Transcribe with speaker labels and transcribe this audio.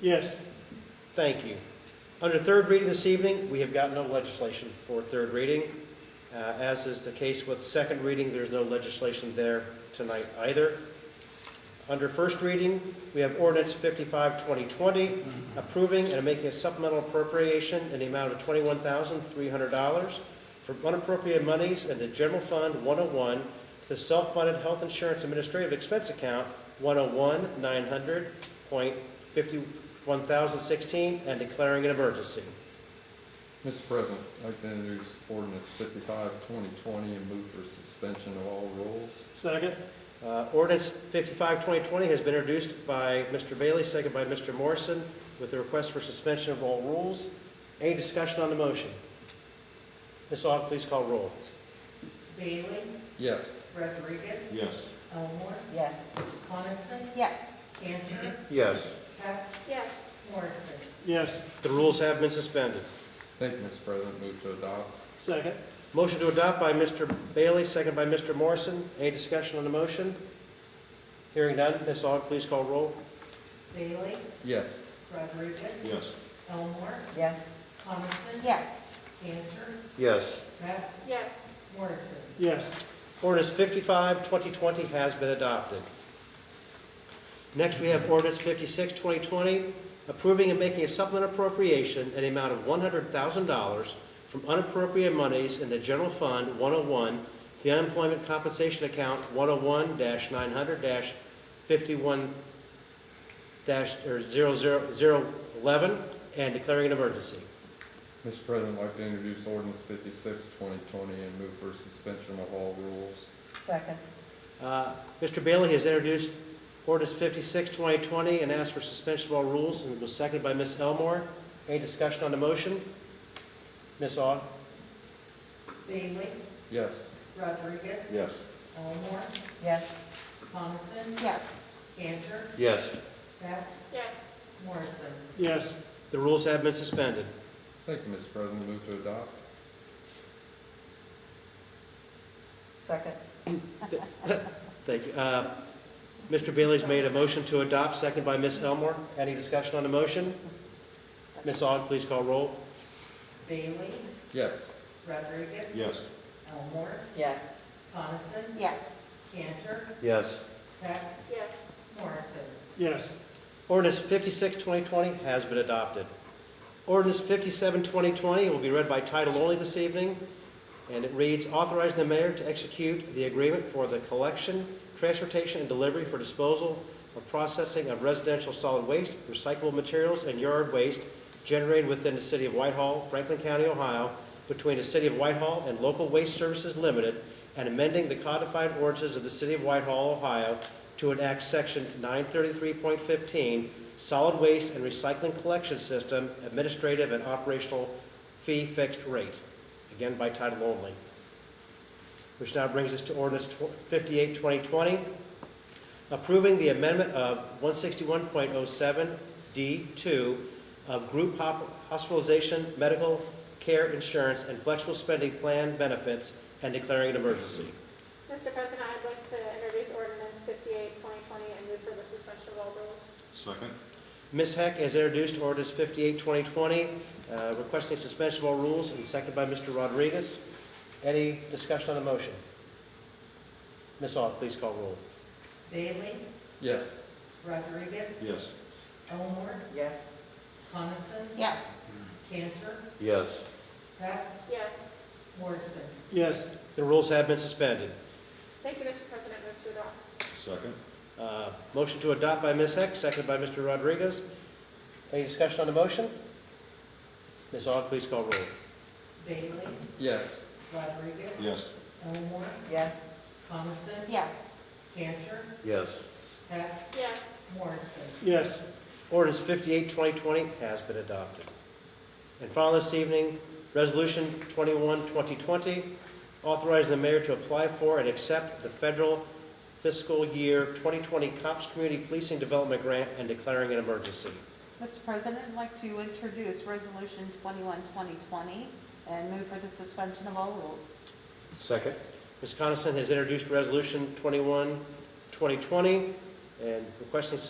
Speaker 1: Yes.
Speaker 2: Thank you. Under third reading this evening, we have got no legislation for third reading. Uh, As is the case with second reading, there's no legislation there tonight either. Under first reading, we have ordinance 55-2020 approving and making a supplemental appropriation in the amount of twenty-one thousand, three hundred dollars from unappropriated monies in the general fund one oh one to the self-funded health insurance administrative expense account one oh one, nine hundred point fifty-one thousand sixteen and declaring an emergency.
Speaker 3: Mr. President, I'd like to introduce ordinance 55-2020 and move for suspension of all rules.
Speaker 1: Second?
Speaker 2: Uh, Ordinance 55-2020 has been introduced by Mr. Bailey, second by Mr. Morrison, with a request for suspension of all rules. Any discussion on the motion? Ms. Aug, please call roll.
Speaker 4: Bailey?
Speaker 3: Yes.
Speaker 4: Rodriguez?
Speaker 5: Yes.
Speaker 4: Elmore?
Speaker 6: Yes.
Speaker 4: Coniston?
Speaker 6: Yes.
Speaker 4: Cantor?
Speaker 5: Yes.
Speaker 4: Heck?
Speaker 6: Yes.
Speaker 4: Morrison?
Speaker 1: Yes.
Speaker 2: The rules have been suspended.
Speaker 3: Thank you, Mr. President. Move to adopt.
Speaker 1: Second?
Speaker 2: Motion to adopt by Mr. Bailey, second by Mr. Morrison. Any discussion on the motion? Hearing none, Ms. Aug, please call roll.
Speaker 4: Bailey?
Speaker 3: Yes.
Speaker 4: Rodriguez?
Speaker 5: Yes.
Speaker 4: Elmore?
Speaker 6: Yes.
Speaker 4: Coniston?
Speaker 6: Yes.
Speaker 4: Cantor?
Speaker 5: Yes.
Speaker 4: Heck?
Speaker 6: Yes.
Speaker 4: Morrison?
Speaker 1: Yes.
Speaker 2: Ordinance 55-2020 has been adopted. Next, we have ordinance 56-2020 approving and making a supplement appropriation in the amount of one hundred thousand dollars from unappropriated monies in the general fund one oh one, the unemployment compensation account one oh one nine hundred fifty-one or 00011, and declaring an emergency.
Speaker 3: Mr. President, I'd like to introduce ordinance 56-2020 and move for suspension of all rules.
Speaker 6: Second.
Speaker 2: Uh, Mr. Bailey has introduced ordinance 56-2020 and asked for suspension of all rules, and it was seconded by Ms. Elmore. Any discussion on the motion? Ms. Aug?
Speaker 4: Bailey?
Speaker 3: Yes.
Speaker 4: Rodriguez?
Speaker 5: Yes.
Speaker 4: Elmore?
Speaker 6: Yes.
Speaker 4: Coniston?
Speaker 6: Yes.
Speaker 4: Cantor?
Speaker 5: Yes.
Speaker 4: Heck?
Speaker 6: Yes.
Speaker 4: Morrison?
Speaker 1: Yes.
Speaker 2: The rules have been suspended.
Speaker 3: Thank you, Mr. President. Move to adopt.
Speaker 6: Second.
Speaker 2: Thank you. Uh, Mr. Bailey's made a motion to adopt, seconded by Ms. Elmore. Any discussion on the motion? Ms. Aug, please call roll.
Speaker 4: Bailey?
Speaker 3: Yes.
Speaker 4: Rodriguez?
Speaker 5: Yes.
Speaker 4: Elmore?
Speaker 6: Yes.
Speaker 4: Coniston?
Speaker 6: Yes.
Speaker 4: Cantor?
Speaker 5: Yes.
Speaker 4: Heck?
Speaker 6: Yes.
Speaker 4: Morrison?
Speaker 1: Yes.
Speaker 2: Ordinance 56-2020 has been adopted. Ordinance 57-2020 will be read by title only this evening, and it reads, authorizing the mayor to execute the agreement for the collection, transportation, and delivery for disposal of processing of residential solid waste, recyclable materials, and yard waste generated within the city of Whitehall, Franklin County, Ohio, between the city of Whitehall and Local Waste Services Limited, and amending the codified ordinances of the city of Whitehall, Ohio, to enact section nine thirty-three point fifteen, solid waste and recycling collection system, administrative and operational fee fixed rate, again by title only. Which now brings us to ordinance tw- 58-2020, approving the amendment of one sixty-one point oh seven D two of group hop- hospitalization, medical care insurance, and flexible spending plan benefits, and declaring an emergency.
Speaker 7: Mr. President, I'd like to introduce ordinance 58-2020 and move for the suspension of all rules.
Speaker 5: Second?
Speaker 2: Ms. Heck has introduced ordinance 58-2020, uh, requesting suspension of all rules, and seconded by Mr. Rodriguez. Any discussion on the motion? Ms. Aug, please call roll.
Speaker 4: Bailey?
Speaker 3: Yes.
Speaker 4: Rodriguez?
Speaker 5: Yes.
Speaker 4: Elmore?
Speaker 6: Yes.
Speaker 4: Coniston?
Speaker 6: Yes.
Speaker 4: Cantor?
Speaker 5: Yes.
Speaker 4: Heck?
Speaker 7: Yes.
Speaker 4: Morrison?
Speaker 1: Yes.
Speaker 2: The rules have been suspended.
Speaker 7: Thank you, Mr. President. Move to adopt.
Speaker 5: Second?
Speaker 2: Uh, Motion to adopt by Ms. Heck, seconded by Mr. Rodriguez. Any discussion on the motion? Ms. Aug, please call roll.
Speaker 4: Bailey?
Speaker 3: Yes.
Speaker 4: Rodriguez?
Speaker 5: Yes.
Speaker 4: Elmore?
Speaker 6: Yes.
Speaker 4: Coniston?
Speaker 6: Yes.
Speaker 4: Cantor?
Speaker 5: Yes.
Speaker 4: Heck?
Speaker 7: Yes.
Speaker 4: Morrison?
Speaker 1: Yes.
Speaker 2: Ordinance 58-2020 has been adopted. And finally, this evening, Resolution 21-2020, authorizing the mayor to apply for and accept the federal fiscal year twenty twenty COPS Community Policing Development Grant and declaring an emergency.
Speaker 8: Mr. President, I'd like to introduce Resolution 21, 2020, and move for the suspension of all rules.
Speaker 5: Second?
Speaker 2: Ms. Coniston has introduced Resolution 21-2020 and requesting